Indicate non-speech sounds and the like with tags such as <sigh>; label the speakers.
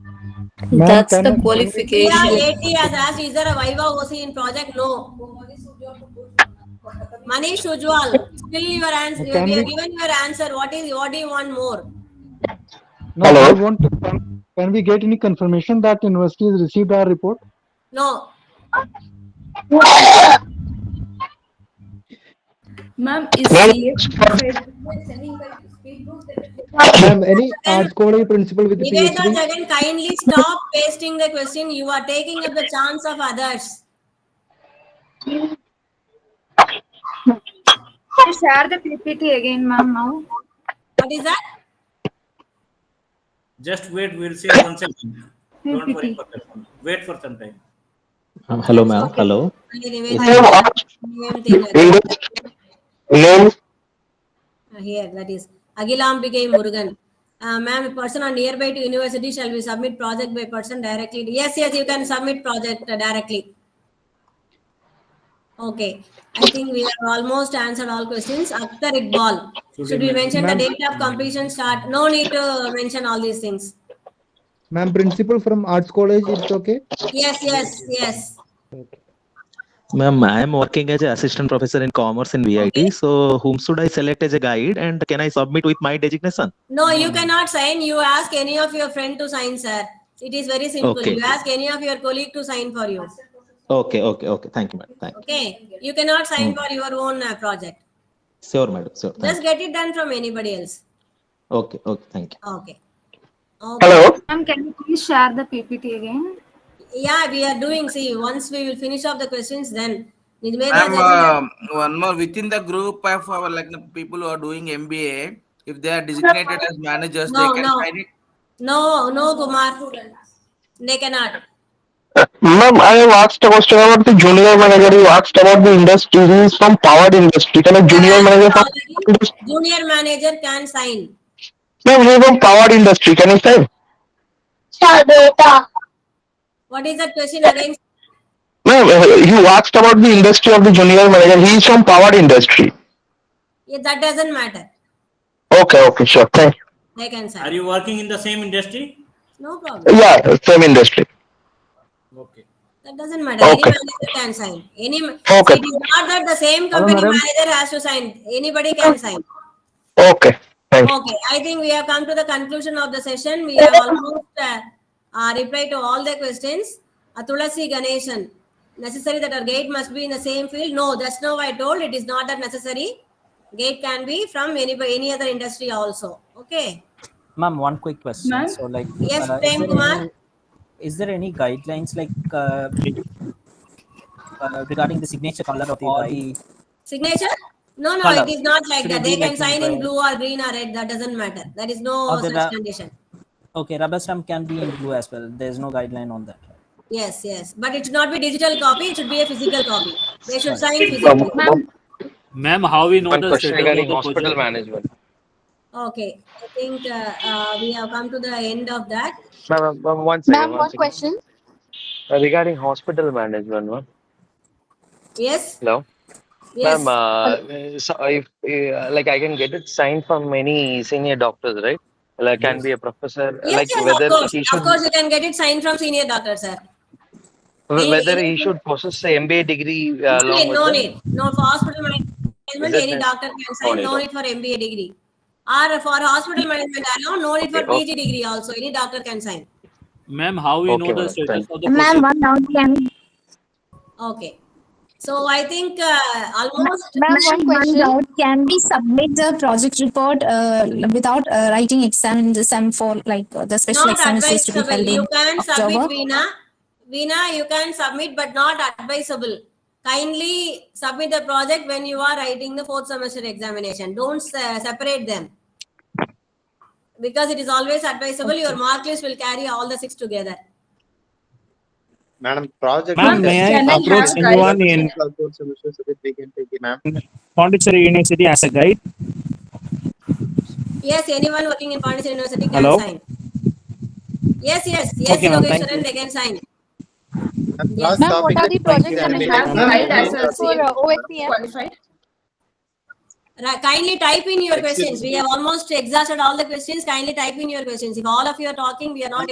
Speaker 1: Ma'am,
Speaker 2: That's
Speaker 1: can
Speaker 2: the
Speaker 1: I-
Speaker 2: qualification.
Speaker 3: Yeah, AT has asked, is there a Viva OC in project? No. Manish Ujwal, still your answer, you
Speaker 1: Can
Speaker 3: have
Speaker 1: we-
Speaker 3: given your answer, what is, what do you want more?
Speaker 1: No,
Speaker 4: Hello?
Speaker 1: I want to, can, can we get any confirmation that university has received our
Speaker 5: <coughs>
Speaker 1: report?
Speaker 3: No,
Speaker 2: Ma'am, is
Speaker 4: Ma'am,
Speaker 1: Ma'am, any arts college principal with
Speaker 3: Niveda
Speaker 1: PhD?
Speaker 3: Jagan, kindly stop pasting the question, you are taking up the chance of others.
Speaker 5: Share the PPT again, ma'am, now.
Speaker 3: What is that?
Speaker 6: Just wait, we'll see one second. Don't worry
Speaker 5: PPT.
Speaker 6: for that one. Wait for some time.
Speaker 7: Um, hello, ma'am. Hello.
Speaker 3: Niveda, name taken.
Speaker 4: name
Speaker 3: Uh, Here, that is, Agilambigai Murugan. Uh, ma'am, a person on nearby to university shall we submit project by person directly? Yes, yes, you can submit project uh, directly. Okay, I think we have almost answered all questions. Akhtar Iqbal, should we mention the date of completion start? No need to mention all these things.
Speaker 1: Ma'am, principal from arts college, it's okay?
Speaker 3: Yes, yes, yes.
Speaker 7: Ma'am, I am working as an assistant professor in commerce in VIT. So, whom should I select as a guide and can I submit with my designation?
Speaker 3: No, you
Speaker 4: Hmm.
Speaker 3: cannot sign. You ask any of your friend to sign, sir. It is very simple.
Speaker 7: Okay.
Speaker 3: You ask any of your colleague to sign for you.
Speaker 7: Okay, okay, okay. Thank you, madam. Thank you.
Speaker 3: Okay, you cannot
Speaker 4: Hmm.
Speaker 3: sign for your own uh, project.
Speaker 7: Sure, madam. Sure. Thank
Speaker 3: Just get it done from anybody else.
Speaker 7: you. Okay, okay. Thank you.
Speaker 3: Okay. Okay.
Speaker 4: hello
Speaker 5: Ma'am, can you please share the PPT again?
Speaker 3: Yeah, we are doing. See, once we will finish off the questions, then. Nidmeda
Speaker 8: Ma'am,
Speaker 3: Jagan-
Speaker 8: uh, one more within the group of our like the people who are doing MBA, if they are designated as managers,
Speaker 3: No,
Speaker 8: they can
Speaker 3: no.
Speaker 8: sign it.
Speaker 3: No, no, Kumar. They cannot.
Speaker 4: ma'am i have asked a question about the junior manager you asked about the industry he is from power industry can a junior manager from industry?
Speaker 3: Junior manager can sign.
Speaker 4: ma'am he is from power industry can you say
Speaker 3: What is that question again?
Speaker 4: ma'am uh, you asked about the industry of the junior manager he is from power industry
Speaker 3: Yeah, That doesn't matter.
Speaker 4: okay okay sure thank you
Speaker 3: They can
Speaker 6: Are
Speaker 3: sign.
Speaker 6: you working in the same industry?
Speaker 3: No problem.
Speaker 4: yeah same industry
Speaker 6: Okay.
Speaker 3: That doesn't matter. Any
Speaker 4: Okay.
Speaker 3: manager can sign. Any, ma-
Speaker 4: Okay.
Speaker 3: it is not that the same company
Speaker 1: madam.
Speaker 3: manager has to sign. Anybody can sign.
Speaker 4: okay thank you
Speaker 3: Okay, I think we have come to the conclusion of the session. We have almost uh, uh, replied to all the questions. Uh, Tulasi Ganeshan, necessary that our gate must be in the same field? No, that's no I told. It is not that necessary. Gate can be from any, any other industry also. Okay.
Speaker 9: Ma'am, one quick question.
Speaker 5: Ma'am?
Speaker 9: So, like,
Speaker 3: Yes,
Speaker 9: uh,
Speaker 3: Prem
Speaker 9: is, there
Speaker 3: Kumar.
Speaker 9: any, is there any guidelines like uh, re- uh, regarding the signature color of the or the
Speaker 3: Signature? No, no,
Speaker 9: Colour.
Speaker 3: it is not like
Speaker 9: Should
Speaker 3: that.
Speaker 9: it
Speaker 3: They
Speaker 9: be
Speaker 3: can
Speaker 9: like
Speaker 3: sign in
Speaker 9: by-
Speaker 3: blue or green or red. That doesn't matter. There is no
Speaker 9: Or the
Speaker 3: such
Speaker 9: ra-
Speaker 3: condition.
Speaker 9: okay rubber stamp can be in blue as well? There's no guideline on that.
Speaker 3: Yes, yes. But it should not be digital copy. It should be a physical copy. They should sign physically.
Speaker 5: Ma'am,
Speaker 10: Ma'am, how we know
Speaker 11: One
Speaker 10: the
Speaker 11: um, question
Speaker 10: status of
Speaker 11: regarding
Speaker 10: the
Speaker 11: hospital
Speaker 10: project?
Speaker 11: management.
Speaker 3: Okay, I think uh, uh, we have come to the end of that.
Speaker 11: Ma'am, ma'am, one second.
Speaker 5: ma'am, one
Speaker 11: second.
Speaker 5: question.
Speaker 11: Uh, Regarding hospital management, ma'am.
Speaker 3: Yes,
Speaker 11: Hello?
Speaker 3: yes.
Speaker 11: Ma'am, uh, so if, uh, like I can get it signed from many senior doctors, right? Like can be a professor,
Speaker 3: yes,
Speaker 11: like
Speaker 3: yes,
Speaker 11: whether
Speaker 3: of course.
Speaker 11: he
Speaker 3: Of
Speaker 11: should,
Speaker 3: course, you can get it signed from senior doctor, sir.
Speaker 11: wh- whether he
Speaker 3: Any-
Speaker 11: should possess a MBA degree uh,
Speaker 3: no
Speaker 11: along
Speaker 3: need,
Speaker 11: with
Speaker 3: no
Speaker 11: it?
Speaker 3: need. No, for hospital management,
Speaker 11: Is it
Speaker 3: any
Speaker 11: a-
Speaker 3: doctor can sign.
Speaker 11: no
Speaker 3: No need for MBA degree. Or for hospital management alone, no need for
Speaker 11: Okay,
Speaker 3: PG degree also. Any doctor can sign.
Speaker 10: Ma'am, how we
Speaker 11: Okay,
Speaker 10: know the
Speaker 11: madam.
Speaker 10: status
Speaker 11: Thank
Speaker 10: of the project?
Speaker 5: one down, ma'am,
Speaker 3: Okay. So I think uh, almost.
Speaker 5: one question. Can we submit the project report, uh, without, uh, writing exam in the sem for, like, uh, the special
Speaker 3: Not
Speaker 5: exam is supposed to be
Speaker 3: advisable.
Speaker 5: held in
Speaker 3: You can submit,
Speaker 5: October?
Speaker 3: Veena. Veena, you can submit, but not advisable. Kindly submit the project when you are writing the fourth semester examination. Don't se- separate them. Because it is always advisable, your mark list will carry all the six together.
Speaker 12: Madam, project.
Speaker 10: Ma'am,
Speaker 12: is-
Speaker 10: may I
Speaker 12: Can
Speaker 10: approach
Speaker 12: have
Speaker 10: anyone
Speaker 12: guidance
Speaker 10: in-
Speaker 12: for both semesters so that we can take it, ma'am?
Speaker 9: Pondicherry University as a guide.
Speaker 3: Yes, anyone working in Pondicherry University can
Speaker 9: Hello?
Speaker 3: sign. Yes, yes, yes,
Speaker 9: Okay, ma'am, thank
Speaker 3: Yogeshwaran, they can sign.
Speaker 12: And last
Speaker 5: Ma'am, what
Speaker 12: topic
Speaker 5: are
Speaker 12: is
Speaker 5: the projects that we
Speaker 12: examination.
Speaker 5: have
Speaker 12: Ma'am,
Speaker 5: filed as
Speaker 12: please-
Speaker 5: well for uh, OSCM?
Speaker 3: Ra- Kindly type in your
Speaker 12: Excuse
Speaker 3: questions. We
Speaker 12: me.
Speaker 3: have almost exhausted all the questions. Kindly type in your questions. If all of you are talking, we are not